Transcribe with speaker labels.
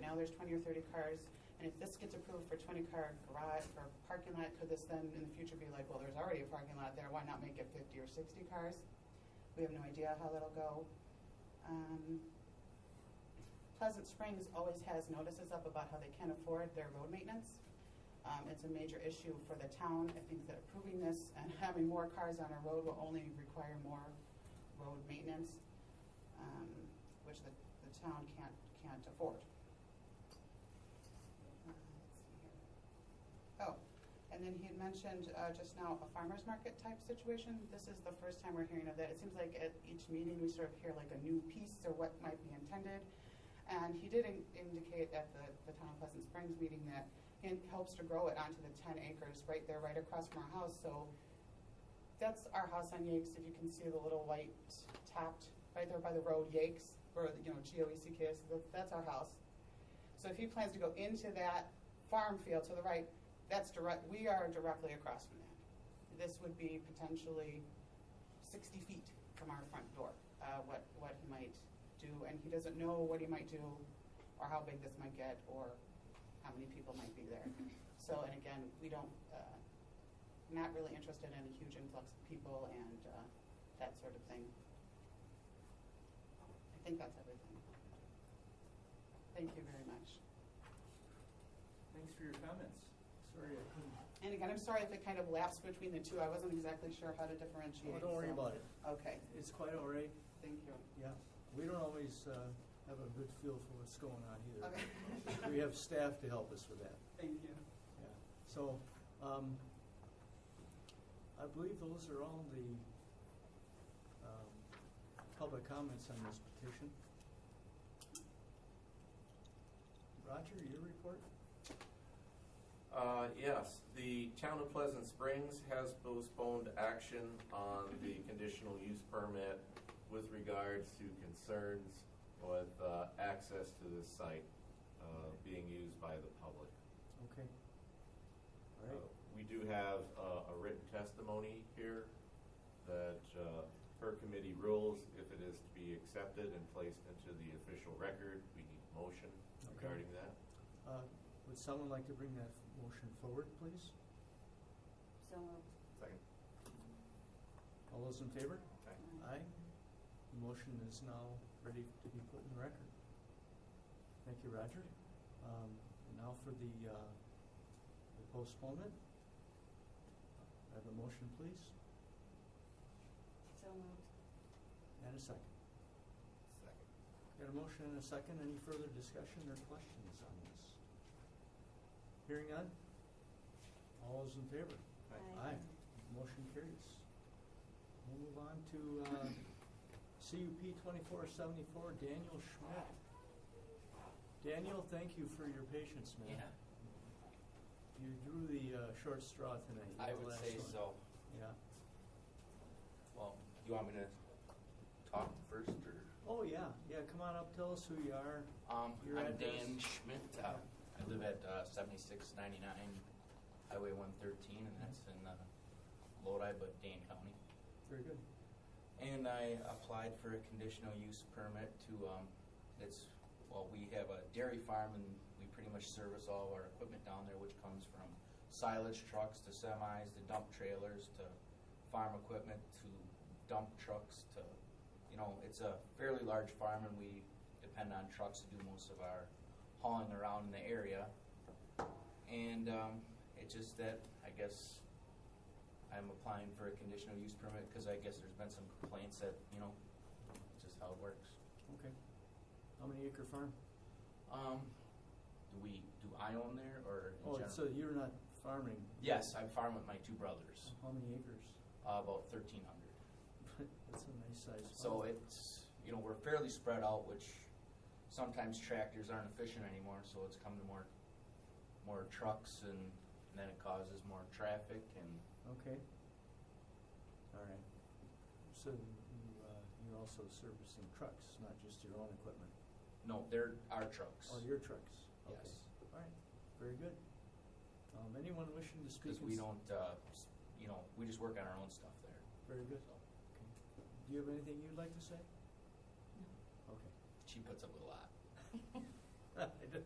Speaker 1: now there's twenty or thirty cars, and if this gets approved for twenty car garage or parking lot, could this then in the future be like, well, there's already a parking lot there, why not make it fifty or sixty cars? We have no idea how that'll go. Um, Pleasant Springs always has notices up about how they can't afford their road maintenance. Um, It's a major issue for the town. I think that approving this and having more cars on our road will only require more road maintenance, um, which the, the town can't, can't afford. Uh, let's see here. Oh, and then he had mentioned uh, just now a farmer's market type situation. This is the first time we're hearing of that. It seems like at each meeting, we sort of hear like a new piece or what might be intended. And he did in- indicate at the, the Town of Pleasant Springs meeting that he helps to grow it onto the ten acres right there, right across from our house. So that's our house on Yakes, if you can see the little white topped, right there by the road, Yakes, or, you know, E G-O-E-C-K-S, that- that's our house. So if he plans to go into that farm field to the right, that's direct, we are directly across from that. This would be potentially 60 feet from our front door, uh, what, what he might do. And he doesn't know what he might do, or how big this might get, or how many people might be there. So, and again, we don't, uh, not really interested in a huge influx of people and uh, that sort of thing. I think that's everything. Thank you very much.
Speaker 2: Thanks for your comments. Sorry I couldn't.
Speaker 1: And again, I'm sorry if it kind of lapsed between the two. I wasn't exactly sure how to differentiate.
Speaker 2: Oh, don't worry
Speaker 1: so-
Speaker 2: about it.
Speaker 1: Okay,
Speaker 2: It's quite all right,
Speaker 1: thank you.
Speaker 2: yeah. We don't always uh, have a good feel for what's going on
Speaker 1: Okay.
Speaker 2: either. We have staff to help us with that,
Speaker 1: Thank you.
Speaker 2: yeah. So um, I believe those are all the um, public comments on this petition. Roger, your report?
Speaker 3: Uh, Yes, the town of Pleasant Springs has postponed action on the conditional use permit with regards to concerns with uh, access to this site uh, being used by the public.
Speaker 2: Okay. All right.
Speaker 3: Uh, We do have uh, a written testimony here that uh, per committee rules, if it is to be accepted and placed into the official record, we need a motion
Speaker 2: Okay.
Speaker 3: regarding that.
Speaker 2: Uh, Would someone like to bring that motion forward, please?
Speaker 1: So moved.
Speaker 3: Second.
Speaker 2: All those in favor? Aye. The motion is now ready to be put in the record. Thank you, Roger. Um, and Now for the uh, the postponement. I Have a motion, please,
Speaker 4: So moved.
Speaker 2: and a second.
Speaker 3: Second.
Speaker 2: Got a motion and a second. Any further discussion or questions on this? Hearing none? All those in favor?
Speaker 4: Aye.
Speaker 2: Aye. Motion carries. We'll move on to uh, CUP 2474, Daniel Schmidt. Daniel, thank you for your patience, man.
Speaker 5: Yeah,
Speaker 2: You drew the uh, short straw tonight. You
Speaker 5: I
Speaker 2: were the
Speaker 5: would
Speaker 2: last
Speaker 5: say
Speaker 2: one.
Speaker 5: so.
Speaker 2: Yeah.
Speaker 5: Well, you want me to talk first, or?
Speaker 2: Oh, yeah, yeah, come on up, tell us who you are.
Speaker 5: Um,
Speaker 2: Your
Speaker 5: I'm
Speaker 2: address?
Speaker 5: Dan Schmidt. Uh, I live at uh, 7699 Highway 113, and that's in uh, Lodi, but Dane County.
Speaker 2: Very good.
Speaker 5: And I applied for a conditional use permit to, um, it's, well, we have a dairy farm and we pretty much service all of our equipment down there, which comes from silage trucks to semis, to dump trailers, to farm equipment, to dump trucks, to, you know, it's a fairly large farm and we depend on trucks to do most of our hauling around in the area. And um, it's just that, I guess, I'm applying for a conditional use permit because I guess there's been some complaints that, you know, it's just how it works.
Speaker 2: Okay. How many acre farm?
Speaker 5: Um, do we, do I own there or in
Speaker 2: Oh,
Speaker 5: general?
Speaker 2: so you're not farming?
Speaker 5: Yes, I farm with my two brothers,
Speaker 2: How many acres?
Speaker 5: uh, about thirteen hundred.
Speaker 2: That's a nice size farm.
Speaker 5: So it's, you know, we're fairly spread out, which sometimes tractors aren't efficient anymore, so it's come to more, more trucks and and then it causes more traffic and,
Speaker 2: Okay. All right. So you, uh, you're also servicing trucks, not just your own equipment?
Speaker 5: no, they're our trucks.
Speaker 2: Oh, your trucks? Okay.
Speaker 5: Yes.
Speaker 2: All right, very good. Um, Anyone wishing to speak?
Speaker 5: Because
Speaker 2: in
Speaker 5: we
Speaker 2: s-
Speaker 5: don't, uh, s- you know, we just work on our own stuff there.
Speaker 2: Very good. Okay. Do you have anything you'd like to say? Okay.
Speaker 5: 啊 She puts up with a lot.
Speaker 2: I do.